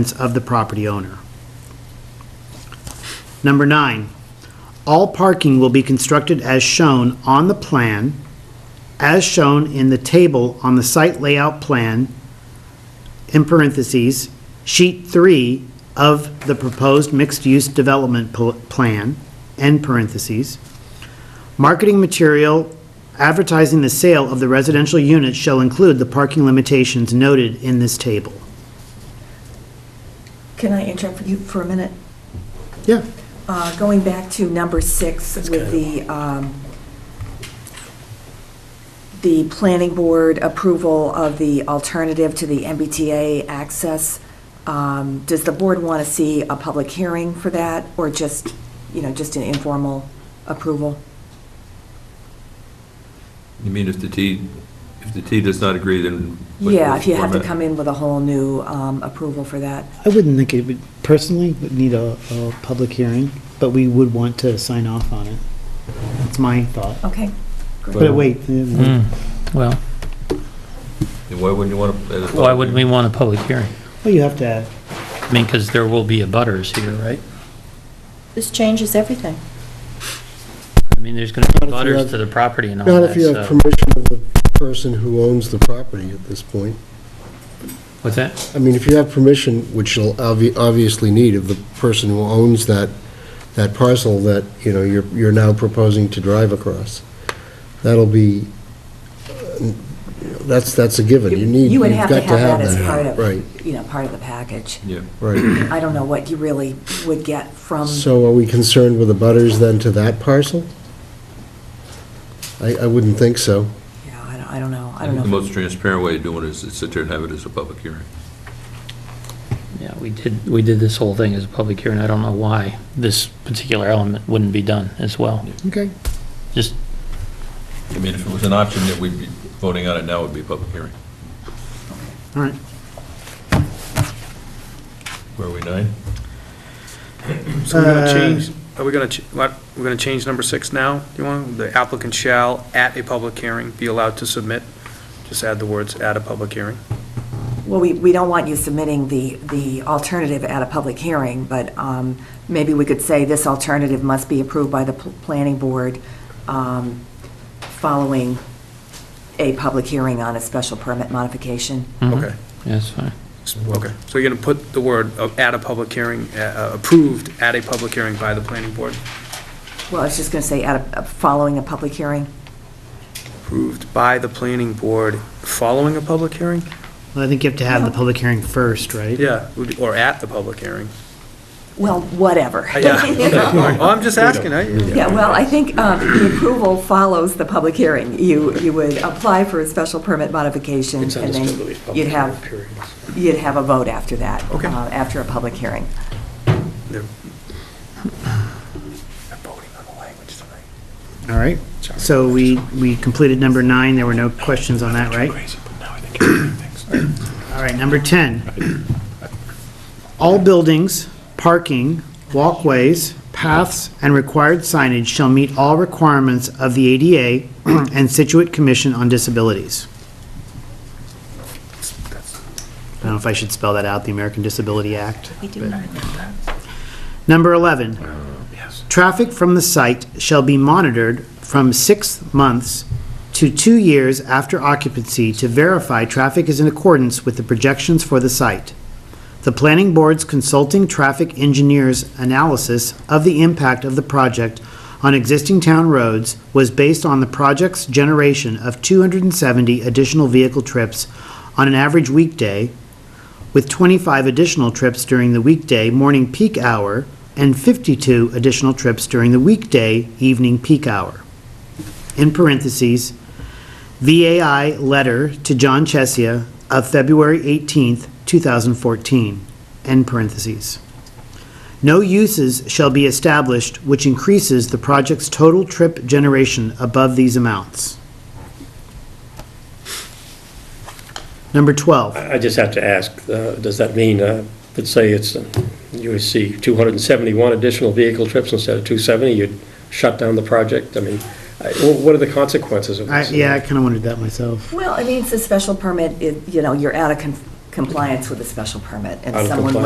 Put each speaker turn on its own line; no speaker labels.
expense of the property owner. Number nine, all parking will be constructed as shown on the plan, as shown in the table on the site layout plan, in parentheses, sheet three of the proposed mixed-use development pl- plan, end parentheses. Marketing material advertising the sale of the residential units shall include the parking limitations noted in this table.
Can I interrupt you for a minute?
Yeah.
Uh, Going back to number six with the, um, the planning board approval of the alternative to the MBTA access, um, does the board want to see a public hearing for that, or just, you know, just an informal approval?
You mean if the T, if the T does not agree, then? what-
Yeah, if you have to
format?
come in with a whole new um, approval for that.
I wouldn't think it would, personally, would need a, a public hearing, but we would want to sign off on it. That's my thought.
Okay.
But wait, uh,
Mm. Hmm. Well,
And Why wouldn't you want to?
why would we want a public hearing?
well, you have to,
I mean, because there will be abutters here, right?
This changes everything.
I mean, there's going to be
Not if you
abutters
have-
to the property and all
Not
that,
if you have
so.
permission of the person who owns the property at this point.
What's that?
I mean, if you have permission, which you'll obvi- obviously need of the person who owns that, that parcel that, you know, you're, you're now proposing to drive across, that'll be, uh, that's, that's a given. You need,
You
you've
would have
got
to have that as part
Right,
of, you know, part of the package.
Yeah,
right.
I don't know what you really would get from.
So are we concerned with the butters then to that parcel? I, I wouldn't think so.
Yeah, I don't, I don't know, I
I
don't
think
know.
the most transparent way of doing it is to sit there and have it as a public hearing.
Yeah, we did, we did this whole thing as a public hearing. I don't know why this particular element wouldn't be done as well.
Okay.
Just,
I mean, if it was an option that we'd be voting on it now, it'd be a public hearing.
all right.
Where are we, nine?
So we're
Uh,
gonna change, are we gonna, ch- what, we're gonna change number six now? Do you want, the applicant shall, at a public hearing, be allowed to submit, just add the words, at a public hearing.
Well, we, we don't want you submitting the, the alternative at a public hearing, but um, maybe we could say this alternative must be approved by the pl- planning board um, following a public hearing on a special permit modification.
mhm.
Okay,
Yeah, that's fine.
S- okay. So you're gonna put the word of, at a public hearing, uh, uh, approved at a public hearing by the planning board,
Well, I was just going to say, at a, following a public hearing.
approved by the planning board following a public hearing?
Well, I think you have to have the public hearing first, right?
Yeah, would- or at the public hearing.
Well, whatever.
Uh, Yeah, okay, all right. Well, I'm just asking, I,
Yeah, well, I think um, the approval follows the public hearing. You, you would apply for a special permit modification, and then you'd have, you'd have a vote after that.
Okay.
uh, After a public hearing.
They're- I'm voting on the language tonight.
All right, so we, we completed number nine, there were no questions on that, right? All right, number 10. All buildings, parking, walkways, paths, and required signage shall meet all requirements of the ADA and Situate Commission on Disabilities. I don't know if I should spell that out, the American Disability Act.
We do
but-
not.
Number 11, traffic from the site shall be monitored from six months to two years after occupancy to verify traffic is in accordance with the projections for the site. The planning board's consulting traffic engineer's analysis of the impact of the project on existing town roads was based on the project's generation of 270 additional vehicle trips on an average weekday with 25 additional trips during the weekday morning peak hour and 52 additional trips during the weekday evening peak hour. In parentheses, VAI letter to John Chesia of February 18th, 2014. End parentheses. No uses shall be established which increases the project's total trip generation above these amounts. Number 12.
I I just have to ask, uh, does that mean, uh, let's say it's, uh, you would see 271 additional vehicle trips instead of 270, you'd shut down the project? I mean, I- wh- what are the consequences of
I,
this?
yeah, I kind of wondered that myself.
Well, I mean, it's a special permit, it- you know, you're out of con- compliance with a special permit, and
Out of
someone